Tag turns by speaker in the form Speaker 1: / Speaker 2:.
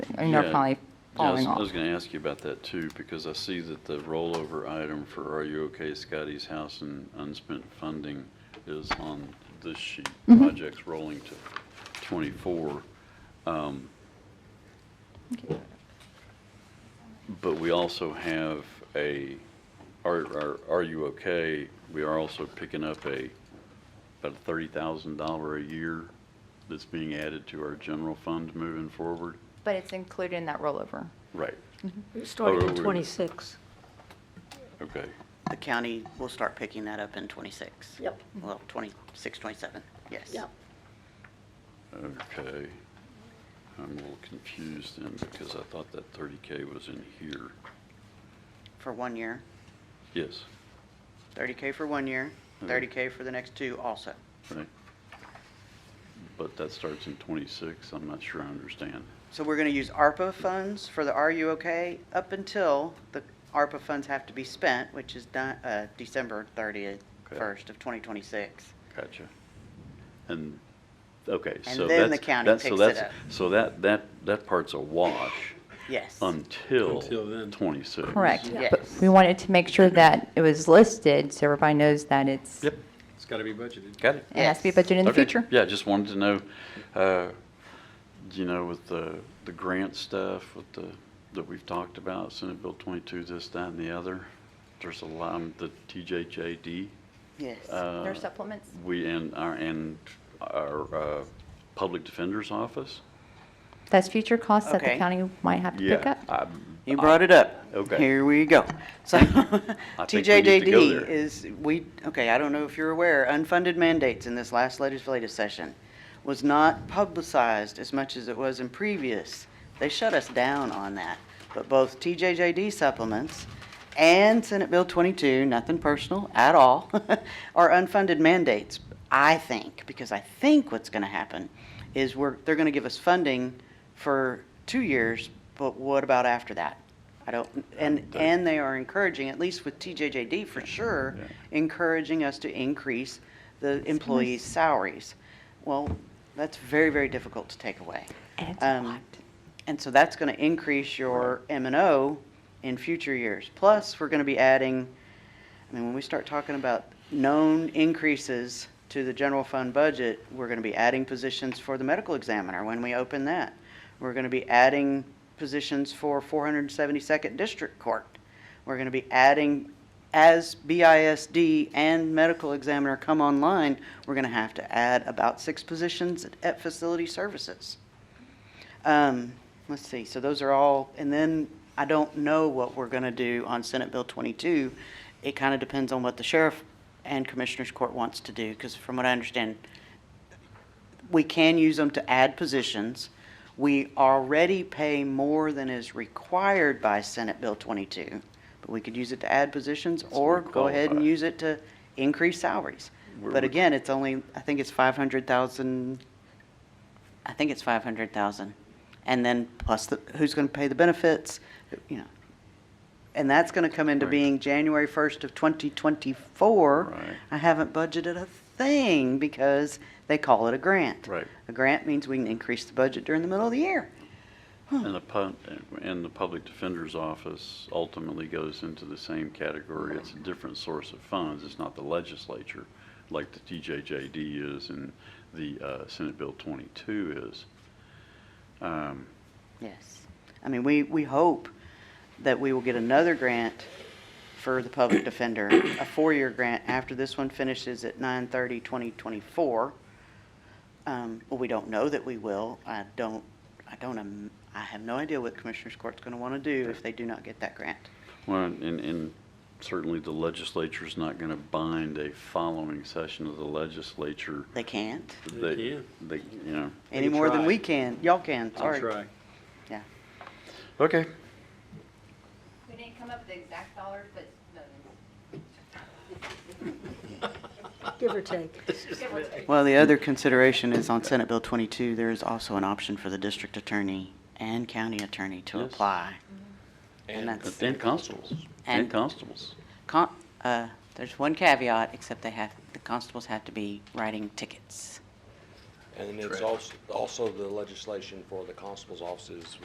Speaker 1: mean, they're
Speaker 2: Yeah.
Speaker 1: probably
Speaker 2: Yeah, I was-
Speaker 1: falling
Speaker 2: I
Speaker 1: off.
Speaker 2: was going to ask you about that too, because I see that the rollover item for Are You OK Scotty's House and unspent funding is on this sheet.
Speaker 1: Mm-hmm.
Speaker 2: Projects rolling to 24. Um, But we also have a, Are Are Are You OK, we are also picking up a, about a $30,000 a year that's being added to our general fund moving forward.
Speaker 1: But it's included in that rollover.
Speaker 2: Right,
Speaker 3: Starting in
Speaker 2: Oh,
Speaker 3: '26.
Speaker 2: okay.
Speaker 4: The county will start picking that up in '26.
Speaker 3: Yep.
Speaker 4: Well, '26, '27, yes.
Speaker 2: Okay. I'm a little confused then because I thought that thirty K was in here.
Speaker 4: For one year,
Speaker 2: Yes,
Speaker 4: 30K for one year,
Speaker 2: Mhm.
Speaker 4: 30K for the next two also.
Speaker 2: right. But that starts in twenty-six. I'm not sure I understand.
Speaker 4: So we're going to use ARPA funds for the Are You OK? up until the ARPA funds have to be spent, which is done, uh, December 31st of 2026.
Speaker 2: Gotcha. And, okay,
Speaker 4: And
Speaker 2: so that's.
Speaker 4: then the county
Speaker 2: that's- so
Speaker 4: picks it
Speaker 2: that's-
Speaker 4: up.
Speaker 2: So that, that, that part's a wash
Speaker 4: Yes.
Speaker 2: Um, until
Speaker 5: Until then.
Speaker 2: twenty-six.
Speaker 1: Correct.
Speaker 4: Yeah.
Speaker 1: But
Speaker 4: Yes.
Speaker 1: we wanted to make sure that it was listed so everybody knows that it's, it
Speaker 2: Yep,
Speaker 5: It's got to be budgeted.
Speaker 2: got it.
Speaker 1: has to be budgeted in the
Speaker 2: Okay.
Speaker 1: future.
Speaker 2: Yeah, just wanted to know, uh, you know, with the, the grant stuff, with the, that we've talked about, Senate Bill 22, this, that, and the other. There's a lot, um, the TJJD,
Speaker 4: Yes.
Speaker 2: uh,
Speaker 1: Their supplements.
Speaker 2: we, and our, and our uh, Public Defender's Office.
Speaker 1: That's future costs that the
Speaker 4: Okay.
Speaker 1: county might have to
Speaker 2: Yeah,
Speaker 1: pick up.
Speaker 2: I'm-
Speaker 4: You brought it up.
Speaker 2: Okay.
Speaker 4: Here we go. So
Speaker 2: think we need to go there.
Speaker 4: TJJD is, we, okay, I don't know if you're aware, unfunded mandates in this last legislative session was not publicized as much as it was in previous. They shut us down on that. But both TJJD supplements and Senate Bill 22, nothing personal at all, are unfunded mandates, I think, because I think what's going to happen is we're, they're going to give us funding for two years, but what about after that? I don't, and, and they are encouraging, at least with TJJD for sure,
Speaker 2: yeah.
Speaker 4: encouraging us to increase the employees' salaries. Well, that's very, very difficult to take away.
Speaker 1: And it's a
Speaker 4: Um,
Speaker 1: lot.
Speaker 4: And so that's gonna increase your M and O in future years. Plus, we're gonna be adding, I mean, when we start talking about known increases to the general fund budget, we're gonna be adding positions for the medical examiner when we open that. We're gonna be adding positions for four hundred and seventy-second district court. We're gonna be adding, as BISD and medical examiner come online, we're gonna have to add about six positions at facility services. Um, let's see, so those are all, and then I don't know what we're gonna do on Senate Bill twenty-two. It kinda depends on what the sheriff and commissioners court wants to do, cause from what I understand, we can use them to add positions. We already pay more than is required by Senate Bill twenty-two, but we could use it to add positions
Speaker 2: That's
Speaker 4: or
Speaker 2: what we
Speaker 4: go ahead and
Speaker 2: qualify.
Speaker 4: use it to increase salaries.
Speaker 2: Where
Speaker 4: But
Speaker 2: would-
Speaker 4: again, it's only, I think it's five hundred thousand I think it's five hundred thousand. And then plus the, who's gonna pay the benefits, you know. And that's gonna come into
Speaker 2: Right.
Speaker 4: being January first of twenty twenty-four.
Speaker 2: Right.
Speaker 4: I haven't budgeted a thing because they call it a grant.
Speaker 2: Right.
Speaker 4: A grant means we can increase the budget during the middle of the year.
Speaker 2: And the pub, and the Public Defender's Office ultimately goes into the same category. It's a different source of funds. It's not the legislature, like the TJJD is and the uh, Senate Bill 22 is. Um,
Speaker 4: Yes. I mean, we, we hope that we will get another grant for the public defender, a four-year grant after this one finishes at 2024. Um, well, we don't know that we will. I don't, I don't, im- I have no idea what Commissioners Court's gonna wanna do if they do not get that grant.
Speaker 2: Well, and, and certainly the legislature's not going to bind a following session of the legislature.
Speaker 4: They can't,
Speaker 5: They can.
Speaker 2: They, you know,
Speaker 4: any
Speaker 5: can
Speaker 4: more than
Speaker 5: try.
Speaker 4: we can. Y'all can,
Speaker 5: I'll
Speaker 4: sorry.
Speaker 5: try.
Speaker 4: Yeah.
Speaker 2: okay.
Speaker 6: We didn't come up with the exact dollars, but
Speaker 3: Give or take.
Speaker 4: Well, the other consideration is on Senate Bill 22, there is also an option for the district attorney and county attorney to
Speaker 2: Yes.
Speaker 4: apply.
Speaker 5: And-
Speaker 4: And that's,
Speaker 2: And constables, and
Speaker 4: And-
Speaker 2: constables.
Speaker 4: con- uh, there's one caveat, except they have, the constables have to be writing tickets.
Speaker 7: And it's also, also the legislation for the constable's offices